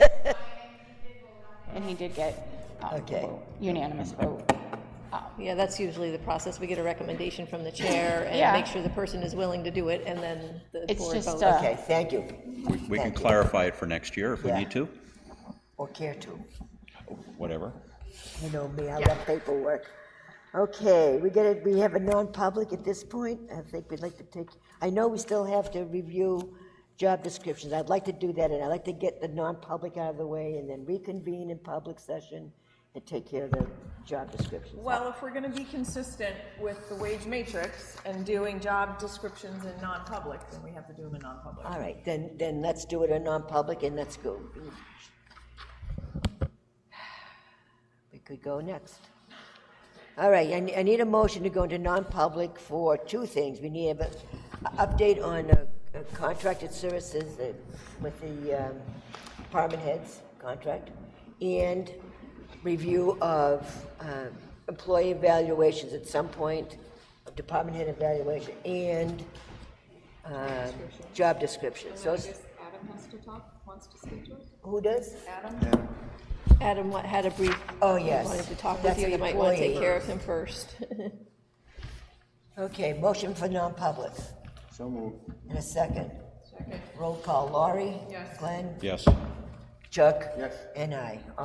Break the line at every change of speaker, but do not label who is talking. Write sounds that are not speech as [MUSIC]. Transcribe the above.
he did get um,
Okay.
unanimous vote.
Yeah, that's usually the process. We get a recommendation from the chair
Yeah.
and make sure the person is willing to do it, and then the
It's
board
just,
votes.
uh,
Okay, thank you,
We- We can clarify it for next year if we
Yeah.
need to,
or care to.
whatever.
You know me, I love paperwork. Okay, we get it, we have a non-public at this point. I think we'd like to take, I know we still have to review job descriptions. I'd like to do that, and I'd like to get the non-public out of the way and then reconvene in public session and take care of the job descriptions.
Well, if we're gonna be consistent with the wage matrix and doing job descriptions in non-public, then we have to do them in non-public.
All right, then, then let's do it in non-public and let's go. We could go next. All right, I, ne- I need a motion to go into non-public for two things. We need an update on uh, uh, contracted services uh, with the um, department heads contract and review of uh, employee evaluations at some point, of department head evaluation and um, job description. So it's-
Adam has to talk, wants to speak to us?
who does?
Adam wa- had a brief.
Oh,
he
yes.
Wanted to talk with
That's
you.
an
You might want to take
employee.
care of him first. [LAUGHS]
Okay, motion for non-public. So moved. And a second. Roll call, Laurie? Yes. Glenn?
Yes.
Chuck? Yes. And I.